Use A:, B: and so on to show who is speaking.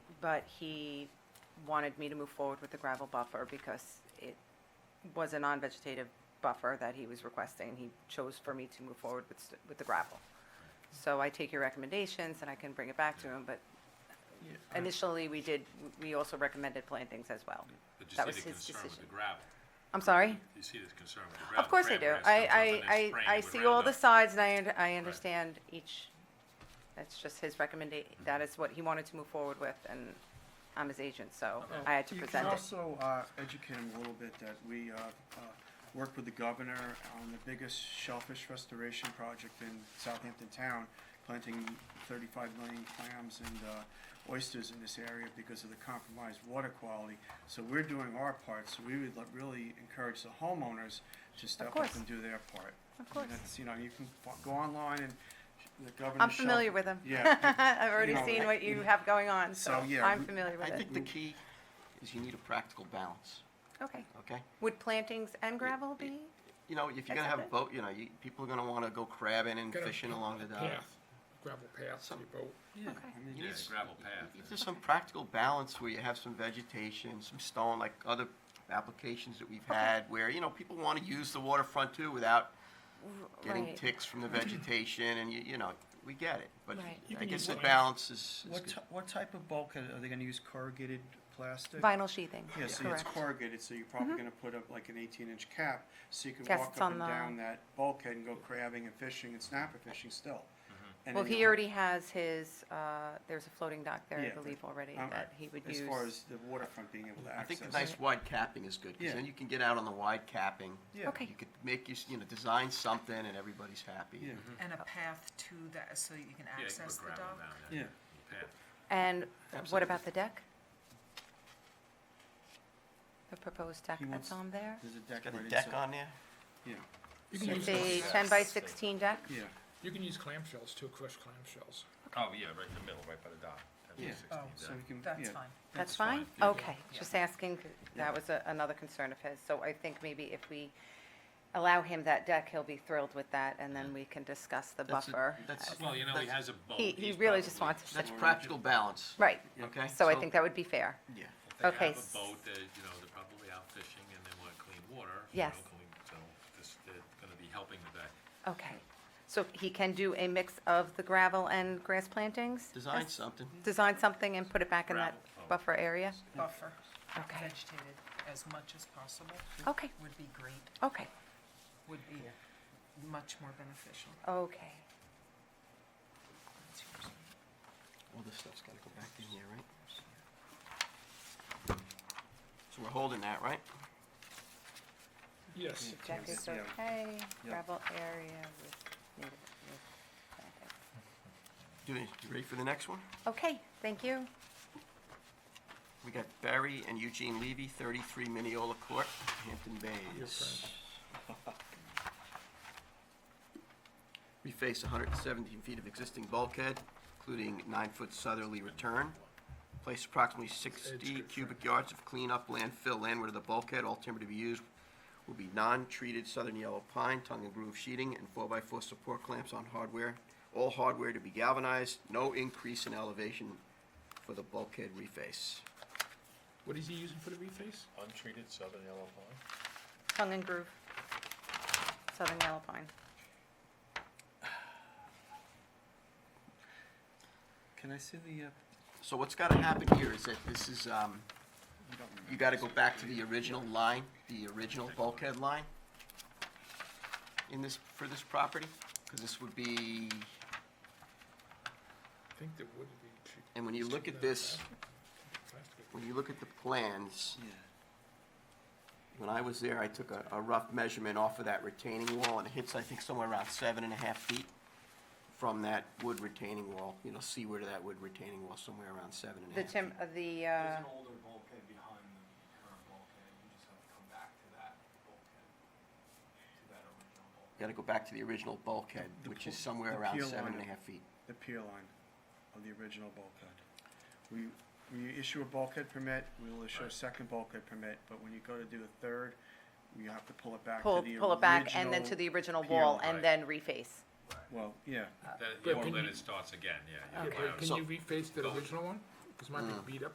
A: but he wanted me to move forward with the gravel buffer because it was a non-vegetative buffer that he was requesting. He chose for me to move forward with, st- with the gravel. So I take your recommendations and I can bring it back to him, but initially we did, we also recommended plantings as well.
B: But you
A: That was
B: see the
A: his
B: concern with
A: decision.
B: the gravel.
A: I'm sorry?
B: You see the concern with the gravel.
A: Of course I do.
B: Crabgrass comes up
A: I,
B: and they
A: I,
B: spray
A: I, I
B: it with
A: see all the
B: Roundup.
A: sides and I, und- I understand each, that's just his recommendation, that is what he wanted to move forward with and I'm his agent, so I had to present
C: You
A: it.
C: can also uh, educate him a little bit that we uh, uh, worked with the governor on the biggest shellfish restoration project in Southampton town, planting 35 million clams and uh, oysters in this area because of the compromised water quality. So we're doing our part, so we would like, really encourage the homeowners to step up
A: course.
C: and do their
A: Of
C: part. I mean,
A: course.
C: that's, you know, you can fo- go online and the governor.
A: I'm familiar with him.
C: Yeah,
A: I've already
C: you know,
A: seen
C: I-
A: what you
C: you-
A: have going on, so
C: So, yeah,
A: I'm
C: we-
A: familiar with
D: I
A: it.
D: think the key is you need a practical balance,
A: Okay.
D: okay?
A: Would plantings and gravel be?
D: You know, if you're gonna have
A: Accept
D: a
A: it.
D: boat, you know, you, people are gonna wanna go crabbing and
E: Get a-
D: fishing along the dock.
E: Path, uh, gravel path to your boat.
D: Yeah,
B: Yeah,
D: you need
B: the
D: s-
B: gravel path.
D: you- There's some practical balance where you have some vegetation, some stone, like other applications that we've had, where, you know, people wanna use the waterfront too without getting
A: Right.
D: ticks from the vegetation, and you, you know, we get it. But
A: Right.
F: You
D: I
F: can
D: guess
F: use
D: the
F: what-
D: balance is, is
C: What,
D: good.
C: ty- what type of bulkhead, are they gonna use corrugated plastic?
A: Vinyl sheathing,
C: Yeah, see, it's
A: correct. Mm-hmm.
C: corrugated, so you're probably gonna put up like an eighteen-inch cap, so you can
A: Yes,
C: walk
A: it's
C: up
A: on
C: and
A: the-
C: down that bulkhead and go crabbing and fishing and snapper fishing still.
D: Mm-hmm.
C: And
A: Well,
C: then
A: he
C: you'll-
A: already has his, uh, there's a floating dock there,
C: Yeah,
A: I believe, already
C: um,
A: that he would use.
C: As far as the waterfront being able to
D: I
C: access.
D: think the nice wide capping is good, because
C: Yeah.
D: then you can get out on the wide capping.
C: Yeah.
A: Okay.
D: You could make, you s- you know, design something and everybody's happy.
C: Yeah,
G: And a path to that, so you can
B: Yeah, you can
G: access
B: put
G: the
B: gravel
G: dock?
B: down there.
C: yeah,
B: Path.
A: And what
D: Absolutely.
A: about the deck? The proposed deck
C: He
A: that's
C: wants-
A: on there?
C: there's a deck
D: Got
C: right
D: a
C: inside.
D: deck on there?
C: Yeah,
E: You can
A: It's
E: use
A: a
E: clam-
A: ten by sixteen deck?
C: yeah,
E: You can use clamshells too, crushed clamshells.
B: Oh, yeah, right in the middle, right by the dock. That's
C: yeah,
B: the
G: Oh.
B: 16
C: so
B: deck.
C: we can, yeah.
G: That's fine.
A: That's fine?
B: fine.
A: Okay, just asking, 'cause that was a- another concern of his. So I think maybe if we allow him that deck, he'll be thrilled with that, and then we can discuss the
D: That's a-
A: buffer.
D: that's-
A: Uh,
B: Well, you know, he has a boat.
A: He, he
B: He's
A: really just
B: probably-
A: wants to,
D: That's practical balance,
A: right,
D: okay?
A: so I think that would be fair.
D: Yeah.
B: If they
A: okay,
B: have
A: s-
B: a boat, they, you know, they're probably out fishing and they want clean water. you
A: Yes.
B: know, clean- So this, they're gonna be helping with that.
A: Okay, so he can do a mix of the gravel and grass plantings?
D: Design
A: Yes.
D: something.
A: Design something and put it back in that
B: Gravel. Oh.
A: buffer area?
G: Buffer,
A: Okay,
G: vegetated as much as possible
A: okay,
G: would be great,
A: okay,
G: would be much more beneficial.
A: okay.
G: That's yours.
D: All this stuff's gotta go back in here, right? So we're holding that, right?
E: Yes,
A: Deck is
C: Yeah.
A: okay,
C: Yeah.
A: gravel area with native, with plantings.
D: Do you, you ready for the next one?
A: Okay, thank you.
D: We got Barry and Eugene Levy, thirty-three Mineola Court, Hampton Bays. We face hundred and seventeen feet of existing bulkhead, including nine-foot southerly return. Place approximately sixty
E: good
D: cubic yards of clean up landfill landward of the bulkhead. All timber to be used will be non-treated southern yellow pine, tongue and groove sheeting, and four-by-four support clamps on hardware. All hardware to be galvanized, no increase in elevation for the bulkhead reface.
E: what is he using for the reface?
B: Untreated southern yellow pine?
A: Tongue and groove, Southern Yellow Pine.
C: Can I see the, uh,
D: So what's gotta happen here is that this is, um,
C: I don't remember.
D: you gotta go back to the original line, the original bulkhead line in this, for this property, cause this would be,
E: I think there would be. cheap-
D: and when you look at this,
E: Plastic.
D: when you look at the plans,
C: Yeah,
D: when I was there, I took a, a rough measurement off of that retaining wall, and it hits, I think, somewhere around seven and a half feet from that wood retaining wall, you know, seaward of that wood retaining wall, somewhere around seven and a
A: The
D: half.
A: tim, uh, the, uh,
H: There's an older bulkhead behind the current bulkhead, you just have to come back to that bulkhead, to that original bulkhead.
D: Gotta go back to the original bulkhead,
C: The
D: which
C: pu-
D: is somewhere
C: the
D: around
C: pier
D: seven
C: line.
D: and a half feet.
C: the pier line of the original bulkhead. We, when you issue a bulkhead permit, we will issue a
B: Right.
C: second bulkhead permit, but when you go to do a third, you have to pull it back
A: pull,
C: to the original.
A: pull it back and then to the original
C: pier
A: wall
B: line.
A: and then reface.
C: Well, yeah,
B: That,
E: But
B: or
E: can
B: then
E: you-
B: it starts again, yeah. you
E: Yeah,
B: can
E: but
B: have-
D: Uh.
E: Can you reface the original one? Because mine be beat up